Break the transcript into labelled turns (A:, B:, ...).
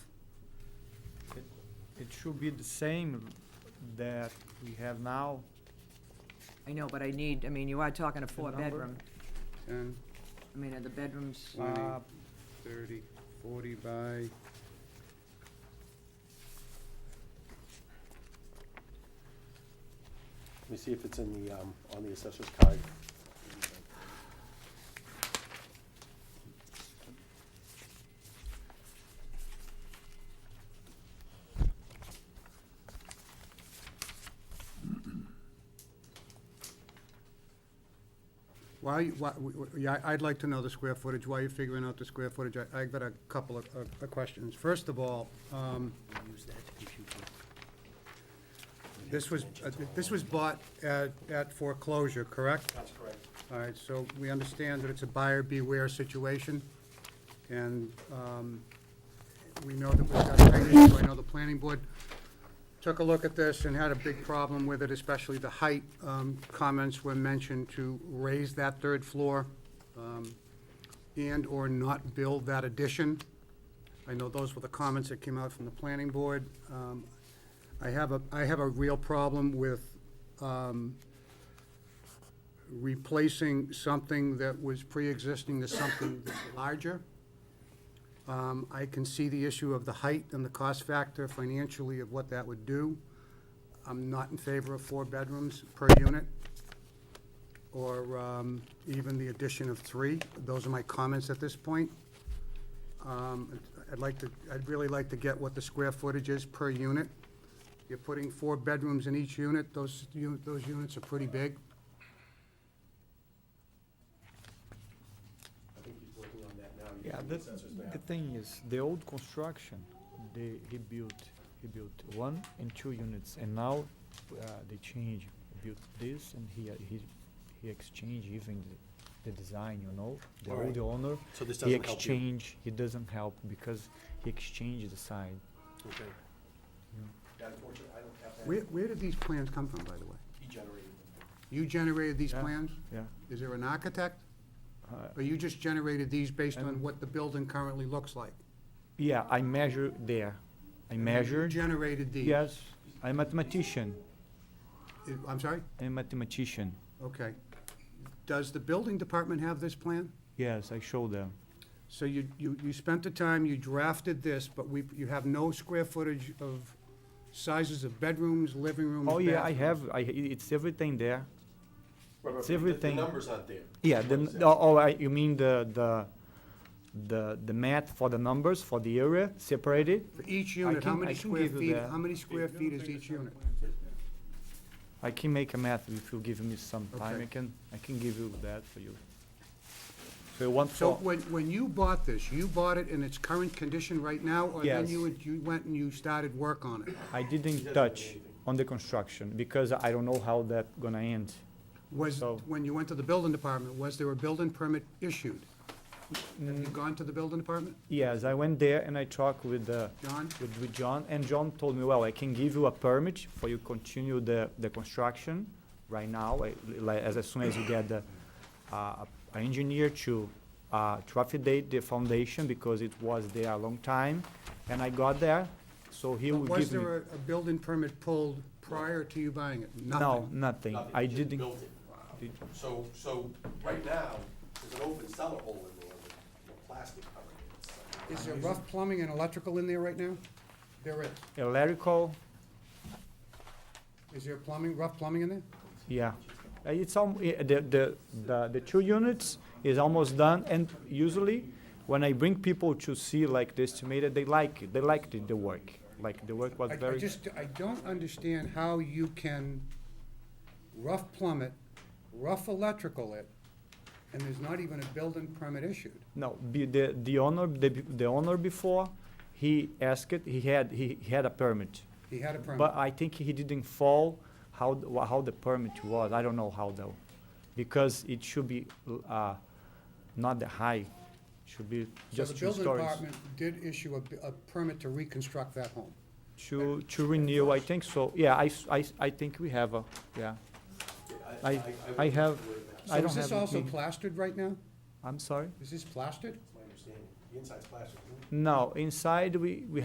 A: should be the same that we have now.
B: I know, but I need, I mean, you are talking a
A: number?
B: four-bedroom.
C: 10,
B: I mean, are the bedrooms,
C: 20,
A: Uh,
C: 30, 40 by,
D: Let me see if it's in the, um, on the assessor's card.
C: why, you- why, w- w- yeah, I- I'd like to know the square footage, why you figuring out the square footage. I, I've got a couple of, of of questions. First of all, um, this was, uh, this was bought at, at foreclosure, correct?
D: That's correct.
C: All right, so we understand that it's a buyer beware situation, and um, we know that we've got a tight issue. I know the planning board took a look at this and had a big problem with it, especially the height. Um, Comments were mentioned to raise that third floor um, and/or not build that addition. I know those were the comments that came out from the planning board. Um, I have a, I have a real problem with um, replacing something that was pre-existing to something that's larger. Um, I can see the issue of the height and the cost factor financially of what that would do. I'm not in favor of four bedrooms per unit, or um, even the addition of three. Those are my comments at this point. Um, I'd like to, I'd really like to get what the square footage is per unit. You're putting four bedrooms in each unit, those, u- those units are pretty big.
D: I think he's working on that now. You
A: Yeah,
D: can
A: the,
D: assessor's map.
A: the thing is, the old construction, they, he built, he built one and two units, and now, uh, they change, built this, and he, uh, he, he exchange even the, the design, you know? The
D: Alright.
A: old owner,
D: So this
A: he
D: doesn't help you?
A: exchange, he doesn't help, because he exchanged the side.
D: Okay.
A: Yeah.
D: Yeah, unfortunately, I don't have
C: Where,
D: that.
C: where did these plans come from, by the way?
D: He generated them.
C: You generated these
A: Yeah.
C: plans?
A: Yeah.
C: Is there an architect?
A: Uh,
C: Or you just generated these based on
A: Um,
C: what the building currently looks like?
A: Yeah, I measure there, I measured,
C: You generated these?
A: yes, I'm mathematician,
C: It- I'm sorry?
A: I'm mathematician,
C: Okay. Does the building department have this plan?
A: yes, I show them.
C: So you, you, you spent the time, you drafted this, but we, you have no square footage of sizes of bedrooms, living rooms,
A: Oh, yeah, I
C: bathrooms.
A: have, I, it's everything there.
D: Right, right,
A: It's
D: but the-
A: everything.
D: The numbers aren't there.
A: Yeah,
D: That's
A: the,
D: what I'm
A: n-
D: saying.
A: oh, oh, I, you mean the, the, the, the math for the numbers, for the area separated?
C: For each unit,
A: can-
C: how
A: I
C: many
A: can
C: square
A: give you
C: feet,
A: that.
C: how many square feet is each unit?
A: I can make a math if you give me some time,
C: Okay.
A: I can, I can give you that for you. So you want
C: So
A: for,
C: when, when you bought this, you bought it in its current condition right now? Or then
A: Yes.
C: you, would- you went and you started work on it?
A: I
D: doesn't
A: didn't
D: have
A: touch
D: anything.
A: on the construction, because I don't know how that gonna end.
C: Was,
A: So-
C: when you went to the building department, was there a building permit issued? Have
A: Mm.
C: you gone to the building department,
A: Yes, I went there and I talked with the,
C: John?
A: with, with John, and John told me, well, I can give you a permit for you continue the, the construction right now, like, like, as as soon as you get the, uh, an engineer to, uh, to affidate the foundation, because it was there a long time, and I got there, so he
C: But
A: will
C: Was
A: give me.
C: there a, a building permit pulled prior to you buying it?
A: No,
C: Nothing.
A: nothing,
D: Nothing,
A: I
D: he just
A: didn't,
D: built it. So, so right now, there's an open cellar hole in there with with plastic covering it. It's like-
C: Is there rough plumbing and electrical in there right now? There is.
A: electrical,
C: Is there plumbing, rough plumbing in there?
A: Yeah, Uh, it's al- i- the, the, the, the two units is almost done, and usually, when I bring people to see like the estimated, they like it, they liked it, the work, like the work was
C: I- I
A: very,
C: just, I don't understand how you can rough plumb it, rough electrical it, and there's not even a building permit issued.
A: no, be- the, the owner, the, b- the owner before, he asked, it, he had, he he had a permit,
C: He had a permit.
A: but uh, I think he didn't follow how, th- wha- how the permit was, I don't know how though, because it should be, l- uh, not the high, should be
C: So
A: just
C: the
A: two
C: building
A: stories.
C: department did issue a b- a, permit to reconstruct that home.
A: To, to renew, I think so, yeah, I, s- I s- I think we have a, yeah, I- I
D: wouldn't
A: have-
D: worry about it.
A: I
C: So
A: don't
C: is this
A: have it
C: also
A: with me.
C: plastered right now?
A: I'm sorry?
C: Is this plastered?
D: That's my understanding. The inside's plastic, isn't it?
A: No, inside we, we